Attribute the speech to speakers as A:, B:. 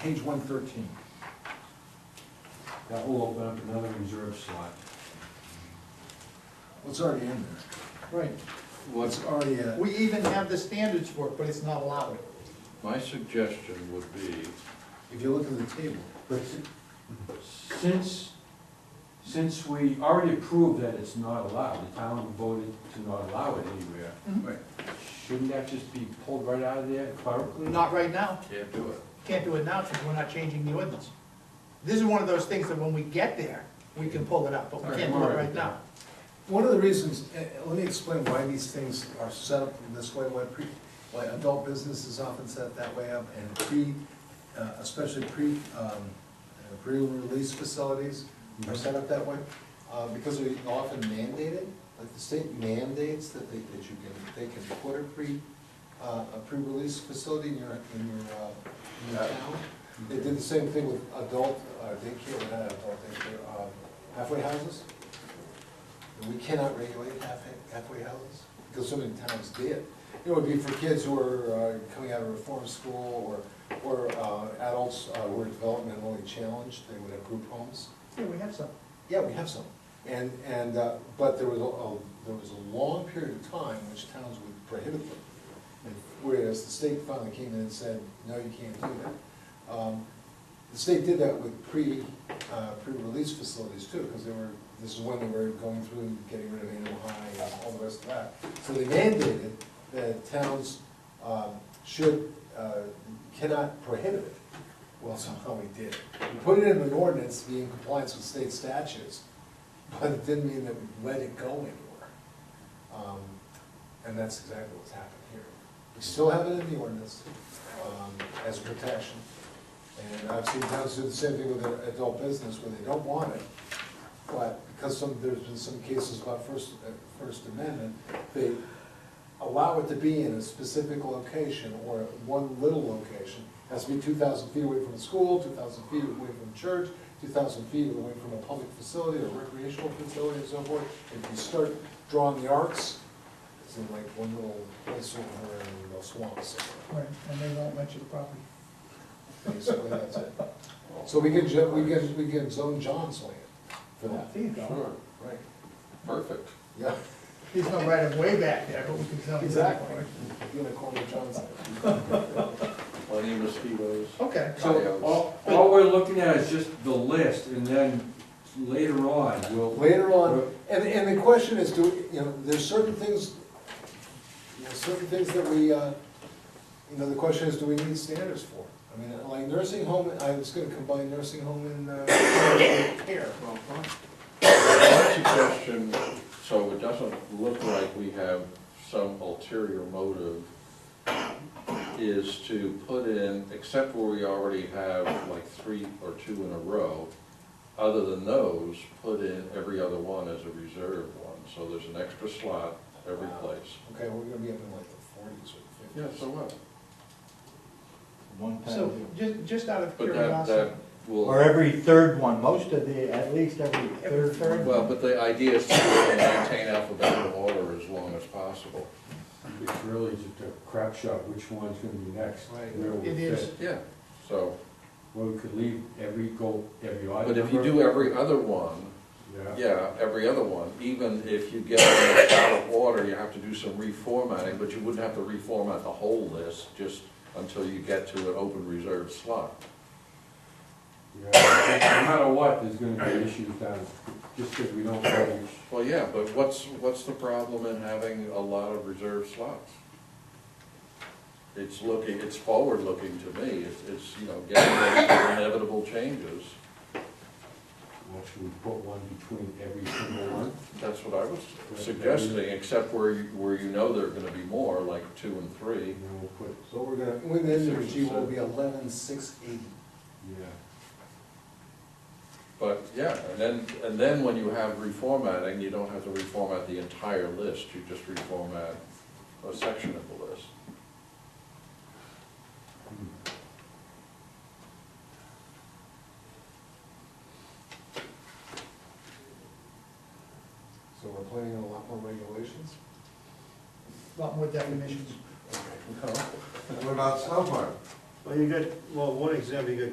A: page one thirteen.
B: That will open up another reserve slot.
A: Well, it's already in there.
C: Right.
D: What,
A: It's already, uh,
C: We even have the standards for it, but it's not allowed.
D: my suggestion would be,
A: if you look at the table,
B: But since, since we already approved that it's not allowed, the town voted to not allow it anywhere,
A: Right.
B: shouldn't that just be pulled right out of there clerically?
C: Not right now.
D: can't do it.
C: Can't do it now because we're not changing the ordinance. This is one of those things that when we get there, we can pull it up, but we can't do it right now.
A: One of the reasons, eh, eh, let me explain why these things are set up in this way, why pre, why adult business is often set that way up, and pre, uh, especially pre, um, eh, pre-release facilities are set up that way, uh, because we often mandate it, like the state mandates that they, that you can, they can put a pre, uh, a pre-release facility in your, in your, uh, in your town. They did the same thing with adult, uh, daycare, not adult daycare, uh, halfway houses. And We cannot regulate half, halfway houses, because so many towns did. It would be for kids who are uh, coming out of reform school or, or uh, adults uh, who are developmentally challenged, they would have group homes.
C: Yeah, we have some.
A: Yeah, we have some. And, and, uh, but there was a- a, there was a long period of time which towns would prohibit them. And Whereas the state finally came in and said, no, you can't do that. Um, The state did that with pre, uh, pre-release facilities too, because they were, this is when they were going through and getting rid of animal high and all the rest of that. So they mandated that towns um, should, uh, cannot prohibit it. Well, somehow we did. We put it in an ordinance to be in compliance with state statutes, but it didn't mean that we let it go anywhere. Um, And that's exactly what's happened here. We still have it in the ordinance um, as protection. And I've seen towns do the same thing with their adult business where they don't want it. But because some, there's been some cases about First, uh, First Amendment, they allow it to be in a specific location or one little location. Has to be two thousand feet away from a school, two thousand feet away from a church, two thousand feet away from a public facility or recreational facility and so forth. If you start drawing the arcs, it's in like one little place over in the swamps somewhere.
C: Right, and they won't let you the property.
A: Basically, that's it. So we can, ju- we can, we can zone John's land for that.
C: There you go.
D: Sure,
A: Right.
D: perfect.
A: Yeah.
C: There's no right of way back there, but we can tell them.
A: Unicorn John's land.
D: Plenty of mosquitoes.
C: Okay.
B: So all, all we're looking at is just the list, and then later on, we'll,
A: Later on, and, and the question is, do, you know, there's certain things, you know, certain things that we, uh, you know, the question is, do we need standards for? I mean, like nursing home, I was gonna combine nursing home and, uh, care.
D: Well, fine. My suggestion, so it doesn't look like we have some ulterior motive, is to put in, except where we already have like three or two in a row, other than those, put in every other one as a reserve one, so there's an extra slot every
A: Wow.
D: place.
A: Okay, we're gonna be up in like the forties or
D: Yeah,
A: fifties.
D: so what?
E: One
C: So,
E: time.
C: just, just out of
D: But that,
C: curiosity.
D: that will.
E: Or every third one, most of the, at least every
C: Every
E: third.
C: third.
E: one.
D: Well, but the idea is to maintain alphabetical order as long as possible.
B: it's really just a crap shot, which one's gonna be next.
A: Right.
B: where we
C: It is.
B: fit.
D: Yeah. So,
B: Well, we could leave every goal, every odd
D: but if you
B: number.
D: do every other one,
B: Yeah.
D: yeah, every other one, even if you get it out of order, you have to do some reformatting, but you wouldn't have to reformat the whole list just until you get to an open reserve slot.
B: Yeah, No matter what, there's gonna be issues down, just because we don't know which.
D: Well, yeah, but what's, what's the problem in having a lot of reserve slots? It's looking, it's forward-looking to me, it's, it's, you know, getting those inevitable changes.
B: Well, should we put one between every single one?
D: That's what I was suggesting, except where you, where you know there are gonna be more, like two and three.
B: And then we'll put,
A: So we're gonna, when the energy will be eleven six eighty.
B: yeah,
D: But, yeah, and then, and then when you have reformatting, you don't have to reformat the entire list, you just reformat a section of the list.
A: So we're planning on a lot more regulations?
C: Lot more definitions.
A: No.
F: What about snowboard?
G: Well, you got, well, one example, you got